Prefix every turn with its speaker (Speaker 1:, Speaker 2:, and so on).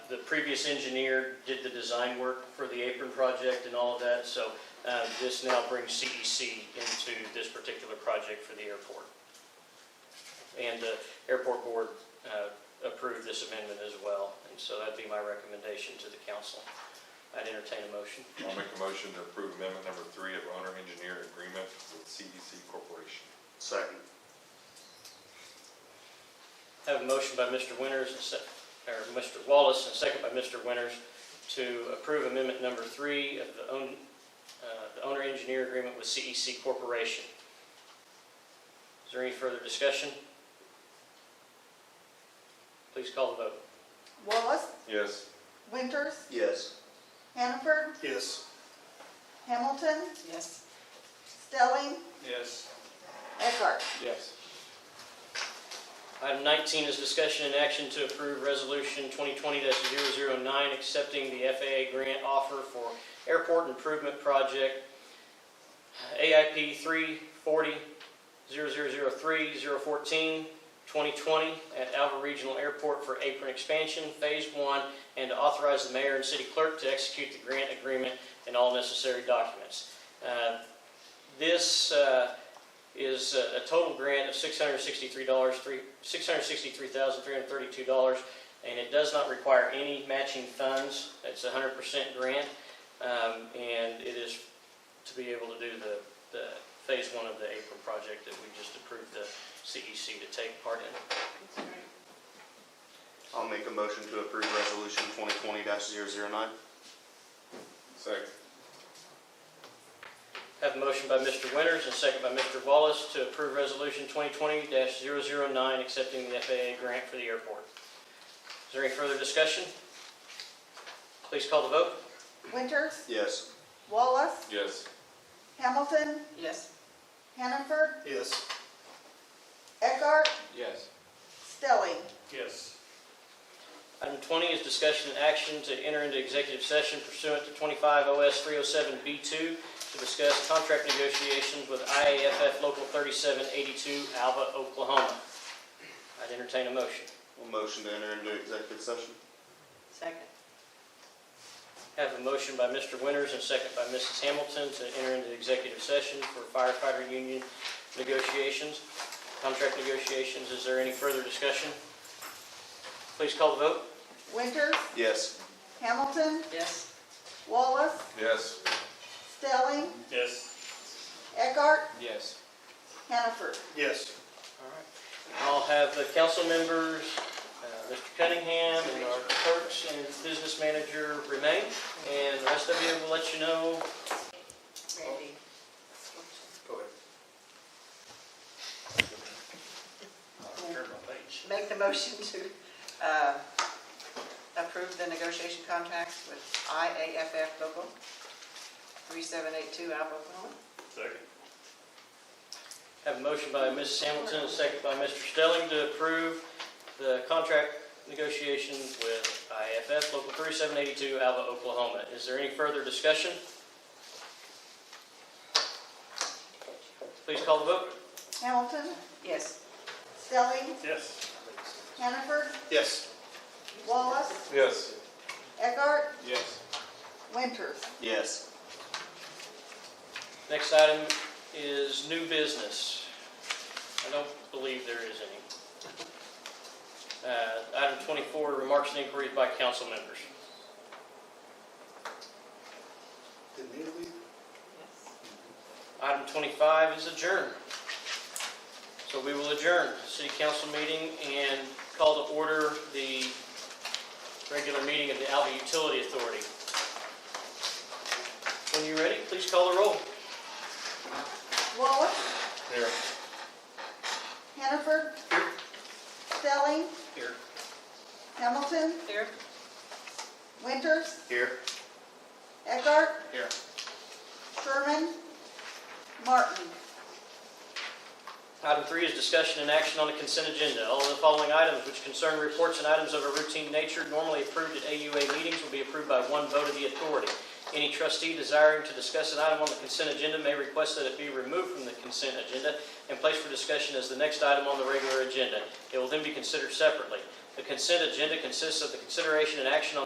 Speaker 1: the previous engineer did the design work for the apron project and all of that, so um, this now brings CEC into this particular project for the airport. And the airport board uh, approved this amendment as well, and so that'd be my recommendation to the council. I'd entertain a motion.
Speaker 2: I'll make a motion to approve amendment number three of owner engineer agreement with CEC Corporation.
Speaker 3: Second.
Speaker 1: I have a motion by Mr. Winters, and se- or Mr. Wallace, and second by Mr. Winters to approve amendment number three of the own- uh, the owner engineer agreement with CEC Corporation. Is there any further discussion? Please call the vote.
Speaker 4: Wallace,
Speaker 2: Yes.
Speaker 4: Winters,
Speaker 3: Yes.
Speaker 4: Hannaford,
Speaker 3: Yes.
Speaker 4: Hamilton. Yes. Stelling,
Speaker 3: Yes.
Speaker 4: Eckhart.
Speaker 2: Yes.
Speaker 1: Item 19 is discussion and action to approve Resolution 2020-009, accepting the FAA grant offer for Airport Improvement Project, AIP 340-0003-014-2020 at Alva Regional Airport for apron expansion, Phase 1, and to authorize the mayor and city clerk to execute the grant agreement and all necessary documents. Uh, This uh, is uh, a a total grant of $663, three- $663,332, and it does not require any matching funds. It's a 100% grant, um, and it is to be able to do the, the phase one of the apron project that we just approved the CEC to take part in.
Speaker 3: I'll make a motion to approve resolution twenty twenty 9
Speaker 2: Second.
Speaker 1: Have a motion by Mr. Winters and second by Mr. Wallace to approve Resolution 2020-009, accepting the FAA grant for the airport. Is there any further discussion? Please call the vote.
Speaker 4: Winters,
Speaker 3: Yes.
Speaker 4: Wallace,
Speaker 2: Yes.
Speaker 4: Hamilton,
Speaker 5: Yes,
Speaker 4: Hannaford,
Speaker 3: Yes.
Speaker 4: Eckhart,
Speaker 2: Yes.
Speaker 4: Stelling.
Speaker 3: Yes.
Speaker 1: Item 20 is discussion and action to enter into executive session pursuant to 25 OS 307B2 to discuss contract negotiations with IAFF Local 3782, Alva, Oklahoma. I'd entertain a motion.
Speaker 3: Motion to enter into executive session?
Speaker 5: second.
Speaker 1: Have a motion by Mr. Winters and second by Mrs. Hamilton to enter into executive session for firefighter union negotiations, contract negotiations. Is there any further discussion? Please call the vote.
Speaker 4: Winters,
Speaker 3: Yes.
Speaker 4: Hamilton,
Speaker 5: Yes.
Speaker 4: Wallace,
Speaker 2: Yes.
Speaker 4: Stelling,
Speaker 3: Yes.
Speaker 4: Eckhart,
Speaker 2: Yes.
Speaker 4: Hannaford.
Speaker 3: Yes.
Speaker 1: All right. I'll have the council members, uh, Mr. Cunningham and our clerks and business manager remain, and the rest of you will let you know
Speaker 5: Randy.
Speaker 3: Go ahead.
Speaker 1: Turn my page.
Speaker 5: Make the motion to uh, approve the negotiation contracts with IAFF Local 3782 Alva, Oklahoma.
Speaker 3: Second.
Speaker 1: Have a motion by Mrs. Hamilton, and a second by Mr. Stelling to approve the contract negotiations with IFF Local 3782, Alva, Oklahoma. Is there any further discussion? Please call the vote.
Speaker 4: Hamilton,
Speaker 5: Yes.
Speaker 4: Stelling,
Speaker 3: Yes.
Speaker 4: Hannaford,
Speaker 3: Yes.
Speaker 4: Wallace,
Speaker 2: Yes.
Speaker 4: Eckhart,
Speaker 2: Yes.
Speaker 4: Winters.
Speaker 3: Yes.
Speaker 1: Next item is new business. I don't believe there is any. Uh, Item 24, remarks and inquiries by council members. Item 25 is adjourn. So we will adjourn the city council meeting and call to order the regular meeting of the Alva Utility Authority. When you're ready, please call the roll.
Speaker 4: Wallace,
Speaker 2: Here.
Speaker 4: Hannaford. Stelling.
Speaker 3: Here.
Speaker 4: Hamilton,
Speaker 5: Here?
Speaker 4: Winters,
Speaker 3: Here.
Speaker 4: Eckhart.
Speaker 3: Here.
Speaker 4: Sherman, Martin.
Speaker 1: Item three is discussion and action on the consent agenda. All of the following items which concern reports and items of a routine nature normally approved at AUA meetings will be approved by one vote of the authority. Any trustee desiring to discuss an item on the consent agenda may request that it be removed from the consent agenda and placed for discussion as the next item on the regular agenda. It will then be considered separately. The consent agenda consists of the consideration and action on